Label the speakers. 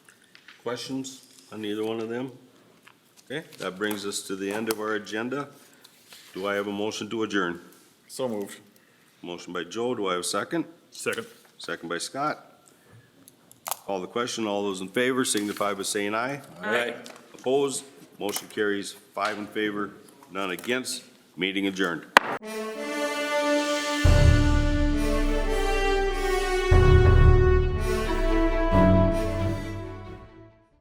Speaker 1: Questions on either one of them? Okay, that brings us to the end of our agenda. Do I have a motion to adjourn?
Speaker 2: So moved.
Speaker 1: Motion by Joe, do I have a second?
Speaker 2: Second.
Speaker 1: Second by Scott. Call the question, all those in favor signify by saying aye.
Speaker 2: Aye.
Speaker 1: Opposed, motion carries five in favor, none against, meeting adjourned.